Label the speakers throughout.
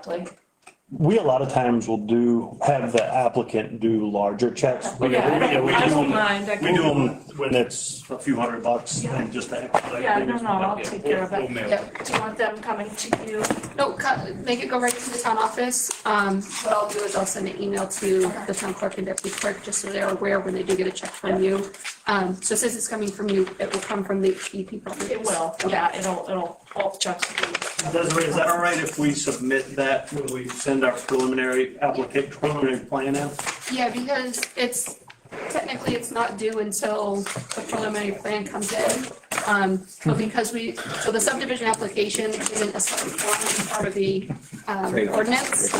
Speaker 1: correctly.
Speaker 2: We a lot of times will do, have the applicant do larger checks. We-
Speaker 1: Yeah, I
Speaker 2: we-
Speaker 1: don't-
Speaker 2: we
Speaker 1: I
Speaker 2: do
Speaker 1: don't
Speaker 2: them-
Speaker 1: mind. I
Speaker 2: We
Speaker 1: can-
Speaker 2: do them when it's a few hundred bucks
Speaker 1: Yeah.
Speaker 2: and just to.
Speaker 1: Yeah, no, no, I'll take care of
Speaker 2: We'll
Speaker 1: it.
Speaker 2: mail
Speaker 1: Yeah. Do you want them coming to you?
Speaker 3: No, cut- make it go right to the town office. Um, what I'll do is I'll send an email to the town clerk and deputy clerk, just so they're aware when they do get a check from you. Um, so since it's coming from you, it will come from the EP properties.
Speaker 1: It will, yeah, it'll, it'll, all checks will be.
Speaker 2: Desiree, is that all right if we submit that when we send our preliminary applicant, preliminary plan out?
Speaker 3: Yeah, because it's, technically, it's not due until the preliminary plan comes in. Um, but because we, so the subdivision application isn't a separate form, it's part of the, um, ordinance.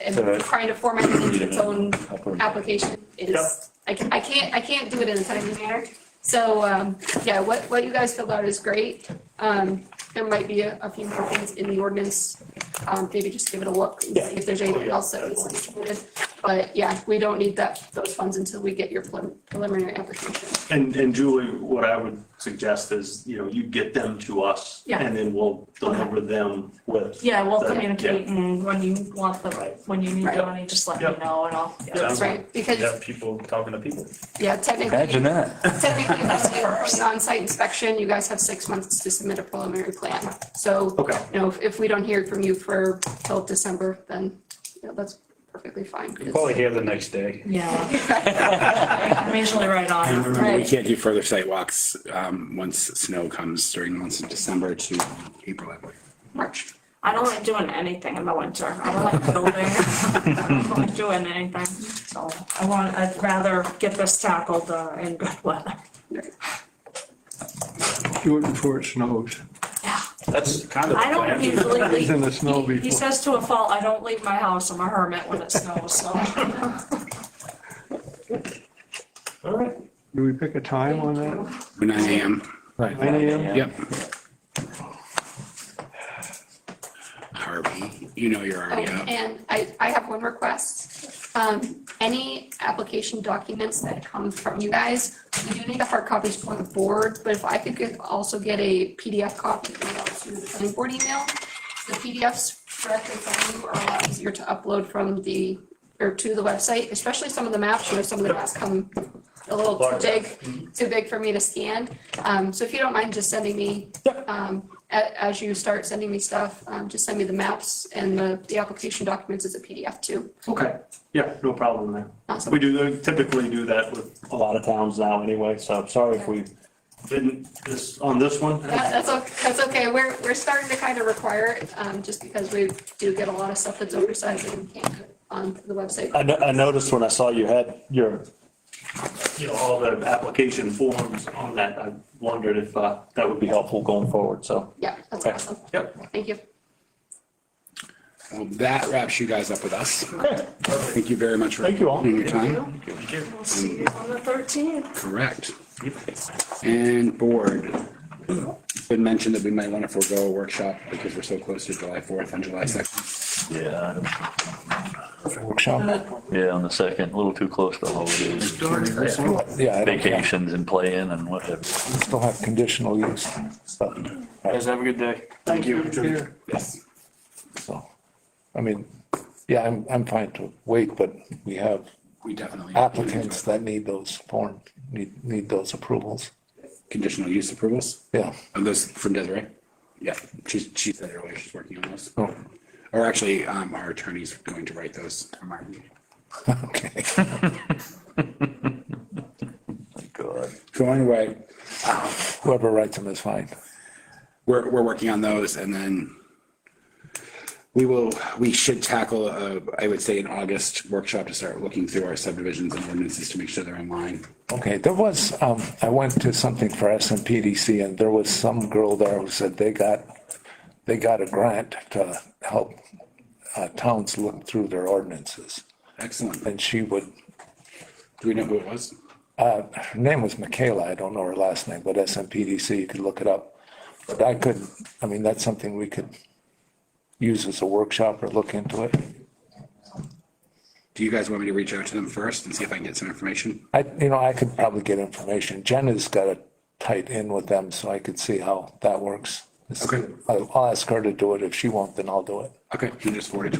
Speaker 3: And trying to format it into its own application is, I ca- I can't, I can't do it in a timely manner. So, um, yeah, what, what you guys filled out is great. Um, there might be a, a few more things in the ordinance. Um, maybe just give it a look and see if there's anything else that needs to be included. But yeah, we don't need that, those funds until we get your prelim- preliminary application.
Speaker 2: And, and Julie, what I would suggest is, you know, you get them to us.
Speaker 1: Yeah.
Speaker 2: And then we'll deliver them with.
Speaker 1: Yeah, we'll
Speaker 2: Yeah.
Speaker 1: communicate and when you want the, when you need the
Speaker 3: Right.
Speaker 1: money, just let me
Speaker 2: Yep.
Speaker 1: know and I'll. yeah.
Speaker 2: Yeah.
Speaker 3: That's right, because,
Speaker 4: have people talking to people.
Speaker 3: yeah, technically,
Speaker 5: Imagine that.
Speaker 3: technically, that's the on-site inspection, you guys have six months to submit a preliminary plan. So,
Speaker 2: Okay.
Speaker 3: you know, if- if we don't hear from you for till December, then, you know, that's perfectly fine.
Speaker 5: Probably here the next day.
Speaker 1: Yeah. I'm usually right on.
Speaker 6: We
Speaker 3: Right,
Speaker 6: can't do further site walks um, once snow comes during the months of December to April, I believe.
Speaker 3: March.
Speaker 1: I don't like doing anything in the winter. I don't like building. I don't like doing anything. So I want, I'd rather get this tackled uh, in good weather.
Speaker 7: do it before it snows.
Speaker 4: That's kind of.
Speaker 1: I don't usually leave.
Speaker 7: It's in the snow
Speaker 1: He- He
Speaker 7: before.
Speaker 1: says to a fault, I don't leave my house. I'm a hermit when it snows, so.
Speaker 2: All right.
Speaker 7: Do we pick a time on that?
Speaker 6: Nine AM.
Speaker 7: Nine AM?
Speaker 6: Yep. Harvey, you know you're
Speaker 3: Oh,
Speaker 6: already up.
Speaker 3: and I, I have one request. Um, any application documents that come from you guys, we do need the hard copies for the board, but if I could get, also get a PDF copy emailed to the planning board email, the PDFs directly from you are a lot easier to upload from the, or to the website, especially some of the maps, you know, some of the maps come a little too
Speaker 2: Mm-hmm.
Speaker 3: big, too big for me to scan. Um, so if you don't mind just sending me, um, a- as you start sending me stuff, um, just send me the maps and the, the application documents as a PDF too.
Speaker 2: Okay. Yeah, no problem there.
Speaker 3: Awesome.
Speaker 2: We do typically do that with a lot of towns now anyway, so I'm sorry if we didn't this, on this one.
Speaker 3: That- That's, o- that's okay. We're, we're starting to kind of require it, um, just because we do get a lot of stuff that's oversized and we can't put on the website.
Speaker 2: I, no- I noticed when I saw you had your, you know, all the application forms on that, I wondered if, uh, that would be helpful going forward, so.
Speaker 3: Yeah, that's
Speaker 2: Okay.
Speaker 3: awesome.
Speaker 2: Yep.
Speaker 3: Thank you.
Speaker 6: Well, that wraps you guys up with us. Thank you very much for.
Speaker 2: Thank you all.
Speaker 6: Your time.
Speaker 1: We'll see you on the thirteenth.
Speaker 6: Correct. And board. Been mentioned that we might want to forego a workshop because we're so close to July 4th and July 2nd.
Speaker 8: Yeah, I don't-
Speaker 6: Workshop.
Speaker 8: yeah, on the second, a little too close to holidays,
Speaker 5: Yeah, I don't care.
Speaker 8: vacations and playing and whatever.
Speaker 5: still have conditional use stuff.
Speaker 4: Guys, have a good day.
Speaker 2: Thank you.
Speaker 6: Yes.
Speaker 5: So, I mean, yeah, I'm, I'm fine to wait, but we have
Speaker 6: We definitely.
Speaker 5: applicants that need those forms, need, need those approvals.
Speaker 6: Conditional use approvals.
Speaker 5: Yeah.
Speaker 6: Of those from Desiree? Yeah, she, she said earlier she's working on those.
Speaker 5: Oh.
Speaker 6: Or actually, um, our attorney's going to write those. for my meeting.
Speaker 5: Okay.
Speaker 8: God.
Speaker 6: Going away.
Speaker 5: Whoever writes them is fine.
Speaker 6: We're, we're working on those and then we will, we should tackle, uh, I would say in August workshop to start looking through our subdivisions and ordinances to make sure they're in line.
Speaker 5: Okay, there was, um, I went to something for S and PDC and there was some girl there who said they got, they got a grant to help uh, towns look through their ordinances.
Speaker 6: Excellent. Do
Speaker 5: And she would,
Speaker 6: we know who it was?
Speaker 5: her name was Michaela, I don't know her last name, but S and PDC, you could look it up. But I could, I mean, that's something we could use as a workshop or look into it.
Speaker 6: Do you guys want me to reach out to them first and see if I can get some information?
Speaker 5: I, you know, I could probably get information. Jen has got it tight in with them, so I could see how that works.
Speaker 6: Okay.
Speaker 5: I'll I'll ask her to do it. If she won't, then I'll do it.
Speaker 6: Okay, you just forwarded